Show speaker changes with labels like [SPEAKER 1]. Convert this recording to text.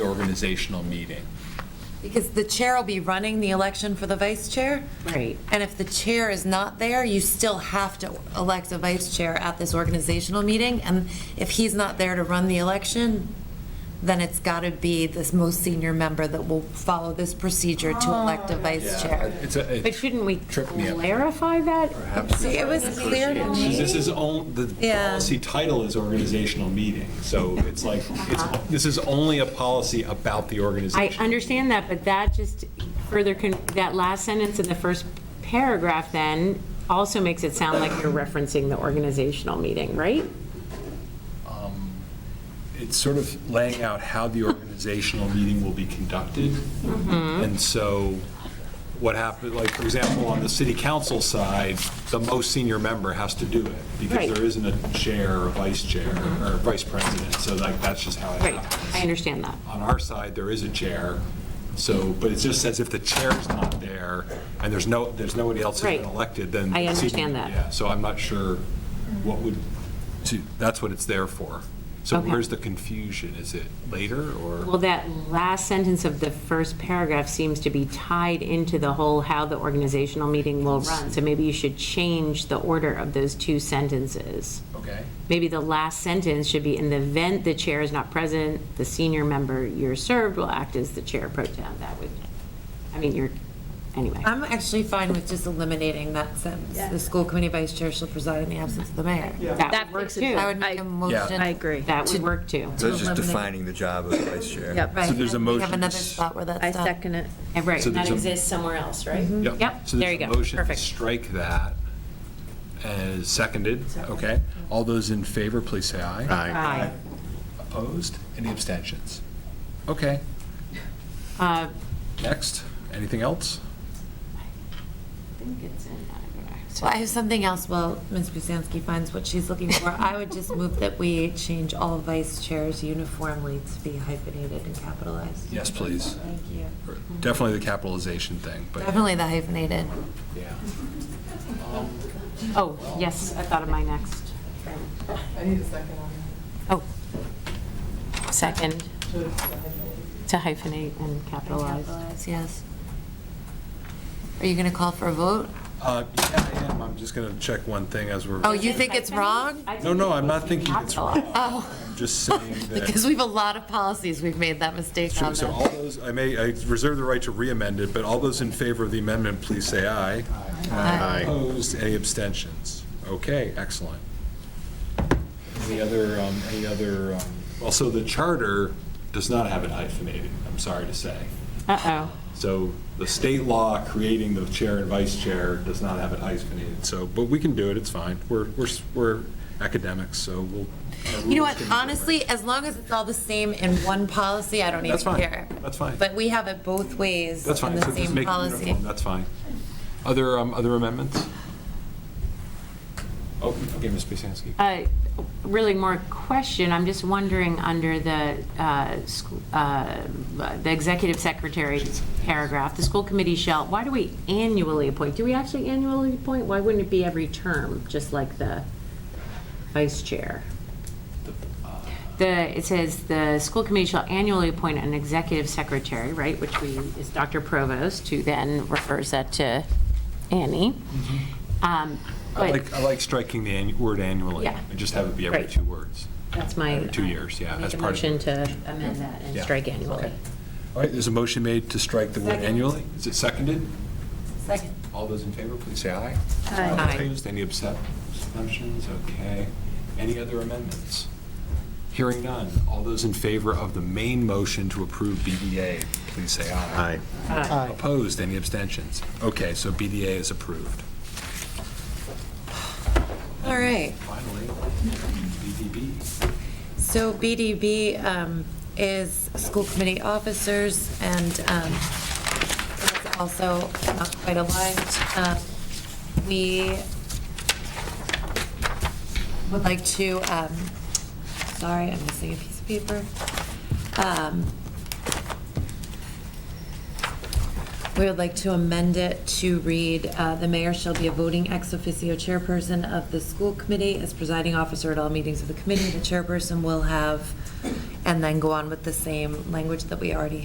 [SPEAKER 1] organizational meeting.
[SPEAKER 2] Because the chair will be running the election for the vice chair.
[SPEAKER 3] Right.
[SPEAKER 2] And if the chair is not there, you still have to elect a vice chair at this organizational meeting. And if he's not there to run the election, then it's got to be this most senior member that will follow this procedure to elect a
[SPEAKER 4] Oh.
[SPEAKER 2] vice chair.
[SPEAKER 1] It's a- it
[SPEAKER 3] But shouldn't we
[SPEAKER 1] tripped me up.
[SPEAKER 3] clarify that?
[SPEAKER 2] See, it was clear to me.
[SPEAKER 5] This is on, the
[SPEAKER 2] Yeah.
[SPEAKER 5] policy title is organizational meeting, so it's like, it's, this is only a policy about the
[SPEAKER 3] I
[SPEAKER 5] organization.
[SPEAKER 3] understand that, but that just further, con- that last sentence in the first paragraph then also makes it sound like you're referencing the organizational meeting, right?
[SPEAKER 5] It's sort of laying out how the organizational meeting will be conducted.
[SPEAKER 3] Mm-hmm.
[SPEAKER 5] And so what happened, like, for example, on the city council side, the most senior member has to do it because
[SPEAKER 3] Right. Mm-hmm.
[SPEAKER 5] there isn't a chair or vice chair or vice president, so like, that's just how it
[SPEAKER 3] Right,
[SPEAKER 5] happens.
[SPEAKER 3] I understand that.
[SPEAKER 5] on our side, there is a chair, so, but it just says if the chair's not there, and there's no, there's nobody else who's been
[SPEAKER 3] Right.
[SPEAKER 5] elected, then.
[SPEAKER 3] I understand that.
[SPEAKER 5] Yeah, so I'm not sure what would, to- that's what it's there for. So
[SPEAKER 3] Okay.
[SPEAKER 5] where's the confusion? Is it later,
[SPEAKER 3] Well,
[SPEAKER 5] or?
[SPEAKER 3] that last sentence of the first paragraph seems to be tied into the whole how the organizational meeting will run. So maybe you should change the order of those two sentences.
[SPEAKER 1] Okay.
[SPEAKER 3] Maybe the last sentence should be, in the event the chair is not present, the senior member you're served will act as the chair pro tem. That would, I mean, you're, anyway.
[SPEAKER 2] I'm actually fine with just eliminating that sentence. The school committee vice chair shall preside in the absence of the mayor.
[SPEAKER 3] That
[SPEAKER 6] That
[SPEAKER 3] would work
[SPEAKER 6] fixes
[SPEAKER 3] too.
[SPEAKER 6] it.
[SPEAKER 2] I would make a
[SPEAKER 6] I-
[SPEAKER 2] motion.
[SPEAKER 6] I agree.
[SPEAKER 3] That would work too.
[SPEAKER 4] So it's just
[SPEAKER 2] Eliminate.
[SPEAKER 4] defining the job of vice chair.
[SPEAKER 6] Yep.
[SPEAKER 2] Right,
[SPEAKER 5] there's a
[SPEAKER 2] and We have
[SPEAKER 5] motion.
[SPEAKER 2] another spot where that's
[SPEAKER 6] I
[SPEAKER 2] done.
[SPEAKER 6] second it.
[SPEAKER 3] And Right,
[SPEAKER 5] So
[SPEAKER 3] that
[SPEAKER 5] there's a-
[SPEAKER 3] exists somewhere else, right?
[SPEAKER 2] Mm-hmm.
[SPEAKER 3] Yep,
[SPEAKER 5] So
[SPEAKER 3] there you
[SPEAKER 5] there's a
[SPEAKER 3] go.
[SPEAKER 5] motion to
[SPEAKER 3] Perfect.
[SPEAKER 5] strike that as seconded, okay? All those in favor, please say aye.
[SPEAKER 3] Aye.
[SPEAKER 5] Opposed? Any abstentions? Okay,
[SPEAKER 3] Uh,
[SPEAKER 5] next, anything else?
[SPEAKER 3] I think it's in, I don't know.
[SPEAKER 2] So I have something else while Ms. Busansky finds what she's looking for. I would just move that we change all vice chairs uniformly to be hyphenated and capitalized.
[SPEAKER 5] Yes, please.
[SPEAKER 2] Thank you.
[SPEAKER 5] Definitely the capitalization thing, but.
[SPEAKER 2] Definitely the hyphenated.
[SPEAKER 5] Yeah.
[SPEAKER 3] Oh, yes, I thought of my next.
[SPEAKER 7] I need a second on
[SPEAKER 3] Oh, second,
[SPEAKER 7] that.
[SPEAKER 3] to hyphenate and capitalize.
[SPEAKER 2] Capitalized, yes. Are you going to call for a vote?
[SPEAKER 5] Uh, Yeah, I am. I'm just going to check one thing as we're.
[SPEAKER 2] Oh, you think it's wrong?
[SPEAKER 5] No, no, I'm not thinking it's wrong.
[SPEAKER 2] Oh,
[SPEAKER 5] I'm just saying
[SPEAKER 2] because
[SPEAKER 5] that.
[SPEAKER 2] we have a lot of policies we've made that mistake
[SPEAKER 5] So
[SPEAKER 2] on.
[SPEAKER 5] so all those, I may, I reserve the right to re-amend it, but all those in favor of the amendment, please say aye.
[SPEAKER 2] Aye.
[SPEAKER 5] Opposed, any abstentions? Okay, excellent. Any other, um, any other? um, Also, the charter does not have it hyphenated, I'm sorry to say.
[SPEAKER 3] Uh-oh.
[SPEAKER 5] So the state law creating the chair and vice chair does not have it hyphenated, so, but we can do it, it's fine. We're, we're, we're academics, so we'll. our
[SPEAKER 2] You know
[SPEAKER 5] rules
[SPEAKER 2] what,
[SPEAKER 5] can be
[SPEAKER 2] honestly, as long as it's all the same in one policy, I don't even
[SPEAKER 5] That's fine.
[SPEAKER 2] care.
[SPEAKER 5] That's fine.
[SPEAKER 2] But we have it both ways
[SPEAKER 5] That's
[SPEAKER 2] in
[SPEAKER 5] fine,
[SPEAKER 2] the
[SPEAKER 5] so just
[SPEAKER 2] same
[SPEAKER 5] make it
[SPEAKER 2] policy.
[SPEAKER 5] uniform, that's fine. Other, um, other amendments? Oh, okay, Ms. Basansky.
[SPEAKER 3] Uh, Really more question, I'm just wondering, under the, uh, sc- uh, the executive secretary paragraph, the school committee shall, why do we annually appoint? Do we actually annually appoint? Why wouldn't it be every term, just like the vice chair? The, it says, the school committee shall annually appoint an executive secretary, right, which we, is Dr. Provost, who then refers that to Annie. Um,
[SPEAKER 5] I
[SPEAKER 3] but-
[SPEAKER 5] like, I like striking the annu- word annually.
[SPEAKER 3] Yeah.
[SPEAKER 5] And just have it be every
[SPEAKER 3] Right.
[SPEAKER 5] two words.
[SPEAKER 3] That's my. uh,
[SPEAKER 5] Every two years, yeah,
[SPEAKER 3] Make
[SPEAKER 5] that's
[SPEAKER 3] a
[SPEAKER 5] part of it.
[SPEAKER 3] motion to amend that and
[SPEAKER 5] Yeah.
[SPEAKER 3] strike annually.
[SPEAKER 5] Okay. All right, there's a motion made to strike the word
[SPEAKER 2] Second.
[SPEAKER 5] annually. Is it seconded?
[SPEAKER 2] Second.
[SPEAKER 5] All those in favor, please say aye.
[SPEAKER 2] Aye.
[SPEAKER 5] Opposed, any absent- abstentions? Okay. Any other amendments? Hearing none. All those in favor of the main motion to approve BDA, please say aye. Aye. Opposed, any abstentions? Okay, so BDA is approved.
[SPEAKER 2] All right.
[SPEAKER 5] Finally, BDB.
[SPEAKER 2] So BDB um, is school committee officers, and um, it's also not quite aligned. Um, We would like to, um, sorry, I'm missing a piece of paper. Um, We would like to amend it to read, uh, "The mayor shall be a voting ex officio chairperson of the school committee as presiding officer at all meetings of the committee. The chairperson will have," and then go on with the same language that we already